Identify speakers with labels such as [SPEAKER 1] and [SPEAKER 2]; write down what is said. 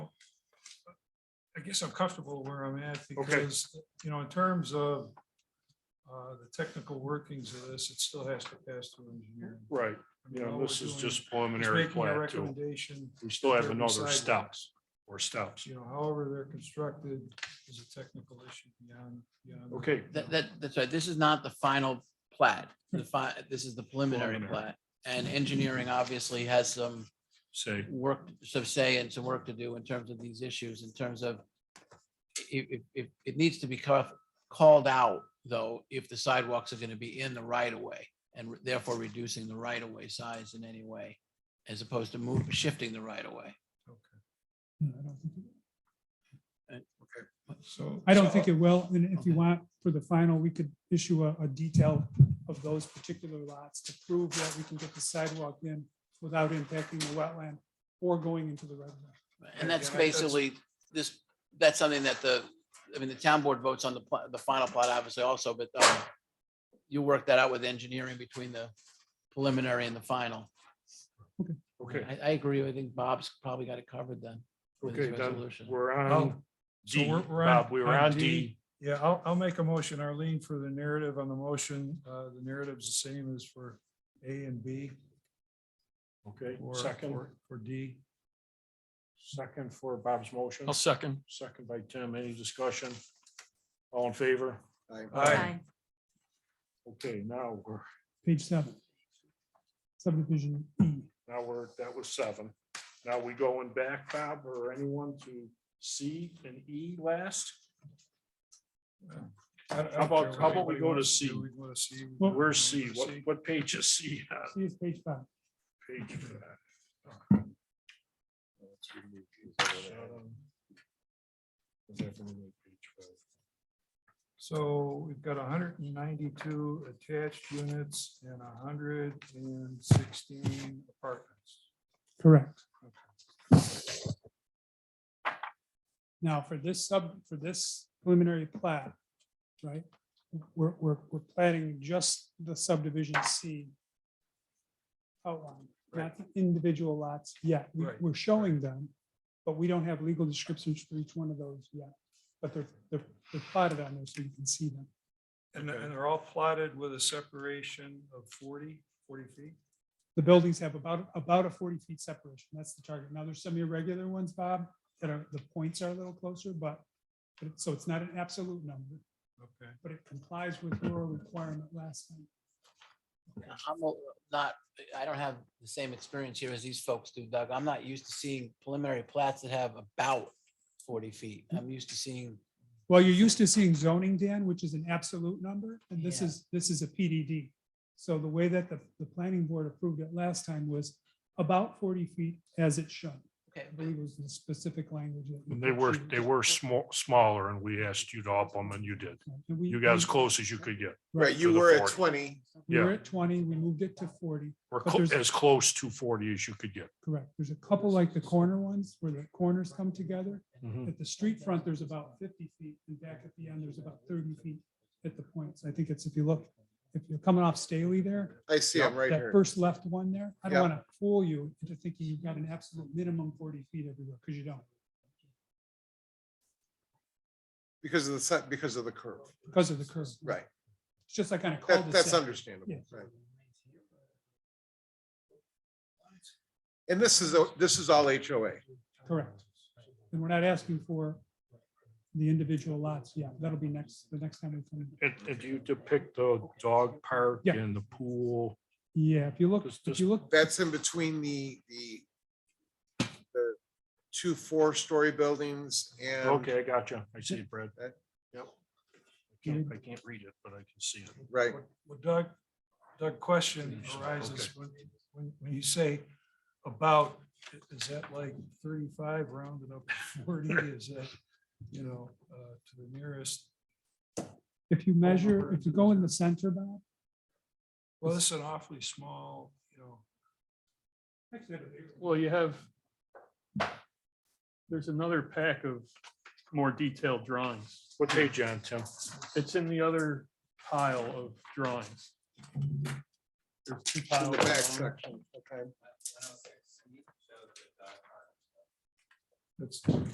[SPEAKER 1] I guess I'm comfortable where I'm at
[SPEAKER 2] Okay.
[SPEAKER 1] because, you know, in terms of uh, the technical workings of this, it still has to pass through engineering.
[SPEAKER 2] Right,
[SPEAKER 1] I mean,
[SPEAKER 2] you know,
[SPEAKER 1] all we're
[SPEAKER 2] this is
[SPEAKER 1] doing
[SPEAKER 2] just
[SPEAKER 1] is
[SPEAKER 2] preliminary
[SPEAKER 1] making a
[SPEAKER 2] plat too.
[SPEAKER 1] Recommendation,
[SPEAKER 2] We still have
[SPEAKER 1] for
[SPEAKER 2] another
[SPEAKER 1] sidewalks.
[SPEAKER 2] steps or steps.
[SPEAKER 1] you know, however they're constructed is a technical issue beyond, beyond.
[SPEAKER 2] Okay,
[SPEAKER 3] That, that, that's right. This is not the final plat. The fi, this is the preliminary
[SPEAKER 2] Preliminary.
[SPEAKER 3] plat. And engineering obviously has some
[SPEAKER 2] say,
[SPEAKER 3] work, some say and some work to do in terms of these issues, in terms of if, if, if, it needs to be ca- called out, though, if the sidewalks are gonna be in the right of way and therefore reducing the right of way size in any way, as opposed to move, shifting the right of way.
[SPEAKER 4] No, I don't think it-
[SPEAKER 1] So.
[SPEAKER 4] I don't think it will, and if you want, for the final, we could issue a, a detail of those particular lots to prove that we can get the sidewalk in without impacting the wetland or going into the right of way.
[SPEAKER 3] And that's
[SPEAKER 1] Yeah, that's-
[SPEAKER 3] basically, this, that's something that the, I mean, the town board votes on the, pla- the final plot obviously also, but um, you work that out with engineering between the preliminary and the final.
[SPEAKER 2] okay,
[SPEAKER 3] I, I agree. I think Bob's probably got it covered then. with his
[SPEAKER 2] okay, then
[SPEAKER 3] resolution.
[SPEAKER 2] we're
[SPEAKER 1] Oh,
[SPEAKER 2] on
[SPEAKER 1] so
[SPEAKER 2] D.
[SPEAKER 1] we're- we're on-
[SPEAKER 2] Bob, we were
[SPEAKER 1] on
[SPEAKER 2] on
[SPEAKER 1] D.
[SPEAKER 2] D.
[SPEAKER 1] Yeah, I'll, I'll make a motion, Arlene, for the narrative on the motion. Uh, the narrative's the same as for A and B.
[SPEAKER 2] Okay,
[SPEAKER 1] for-
[SPEAKER 2] second,
[SPEAKER 1] for- For D.
[SPEAKER 2] second for Bob's motion,
[SPEAKER 5] I'll second.
[SPEAKER 2] second by Tim. Any discussion? All in favor?
[SPEAKER 1] Aye.
[SPEAKER 2] Okay, now we're,
[SPEAKER 4] Page seven. Subdivision E.
[SPEAKER 2] now we're, that was seven. Now we going back, Bob, or anyone to C and E last?
[SPEAKER 1] I- I don't
[SPEAKER 2] How
[SPEAKER 1] care
[SPEAKER 2] about-
[SPEAKER 1] what
[SPEAKER 2] how about we
[SPEAKER 1] anybody
[SPEAKER 2] go to
[SPEAKER 1] wants
[SPEAKER 2] C?
[SPEAKER 1] do. We go to C. We
[SPEAKER 4] Well-
[SPEAKER 1] go
[SPEAKER 2] Where's
[SPEAKER 1] to
[SPEAKER 2] C? What, what page is C on?
[SPEAKER 4] See, it's page five.
[SPEAKER 2] Page for that.
[SPEAKER 1] So we've got hundred and ninety-two attached units and hundred and sixteen apartments.
[SPEAKER 4] Correct. Now, for this sub, for this preliminary plat, right, we're, we're, we're platting just the subdivision C outline, not the individual lots yet. We-
[SPEAKER 1] Right,
[SPEAKER 4] We're showing them, but we don't have legal descriptions for each one of those yet. But they're, they're they're plotted on there so you can see them.
[SPEAKER 1] And, and they're all plotted with a separation of 40 40 feet.
[SPEAKER 4] the buildings have about, about a forty feet separation. That's the target. Now, there's some irregular ones, Bob, that are, the points are a little closer, but, but it- so it's not an absolute number,
[SPEAKER 1] Okay.
[SPEAKER 4] but it complies with your requirement last time.
[SPEAKER 3] I'm a- not, I don't have the same experience here as these folks do, Doug. I'm not used to seeing preliminary plats that have about forty feet. I'm used to seeing,
[SPEAKER 4] Well, you're used to seeing zoning, Dan, which is an absolute number, and this
[SPEAKER 3] Yeah.
[SPEAKER 4] is, this is a PDD. So the way that the, the planning board approved it last time was about forty feet as it should.
[SPEAKER 3] okay,
[SPEAKER 4] I
[SPEAKER 3] but
[SPEAKER 4] believe was the specific language. that we-
[SPEAKER 2] And They were, they were small, smaller and we asked you to up them and you did.
[SPEAKER 4] And we-
[SPEAKER 2] You got as
[SPEAKER 4] we-
[SPEAKER 2] close as you could get.
[SPEAKER 6] Right,
[SPEAKER 2] to
[SPEAKER 6] you
[SPEAKER 2] the
[SPEAKER 6] were at
[SPEAKER 2] 40.
[SPEAKER 6] twenty.
[SPEAKER 4] We were
[SPEAKER 2] yeah.
[SPEAKER 4] at twenty, we moved it to forty.
[SPEAKER 2] Or
[SPEAKER 4] But
[SPEAKER 2] clo-
[SPEAKER 4] there's-
[SPEAKER 2] as close to forty as you could get.
[SPEAKER 4] Correct. There's a couple like the corner ones where the corners come together.
[SPEAKER 2] Mhm.
[SPEAKER 4] At the street front, there's about fifty feet and back at the end, there's about thirty feet at the points. I think it's if you look, if you're coming off Staley there,
[SPEAKER 6] I see him right
[SPEAKER 4] that
[SPEAKER 6] here.
[SPEAKER 4] first left one there, I don't want to fool you into thinking you've got an absolute minimum forty feet everywhere because you don't,
[SPEAKER 6] Because of the set, because of the curve.
[SPEAKER 4] because of the curve.
[SPEAKER 6] Right.
[SPEAKER 4] It's just like on a
[SPEAKER 6] That,
[SPEAKER 4] cul-de-sac.
[SPEAKER 6] that's understandable.
[SPEAKER 4] Yeah.
[SPEAKER 6] right. And this is, a- this is all HOA.
[SPEAKER 4] Correct. And we're not asking for the individual lots. Yeah, that'll be next, the next time we come. in.
[SPEAKER 2] And, and you depict the dog park
[SPEAKER 4] Yeah.
[SPEAKER 2] and the pool.
[SPEAKER 4] Yeah, if you look,
[SPEAKER 2] This-
[SPEAKER 4] if you look
[SPEAKER 6] That's in between the, the the two four-story buildings and.
[SPEAKER 2] Okay, I got you. I see it, Brad.
[SPEAKER 6] Okay.
[SPEAKER 2] Yep. I can't, I can't read it, but I can see it.
[SPEAKER 6] Right,
[SPEAKER 1] Well, Doug, Doug, question arises when, when, when you say about, is that like thirty-five rounded up to forty? Is that, you know, uh, to the nearest?
[SPEAKER 4] If you measure, if you go in the center, Bob.
[SPEAKER 1] Well, this is an awfully small, you know.
[SPEAKER 5] Well, you have, there's another pack of more detailed drawings.
[SPEAKER 2] What page you on, Tim?
[SPEAKER 5] It's in the other pile of drawings. There's two piles.
[SPEAKER 6] in the
[SPEAKER 5] of
[SPEAKER 6] back
[SPEAKER 5] drawings.
[SPEAKER 6] section. Okay.
[SPEAKER 1] That's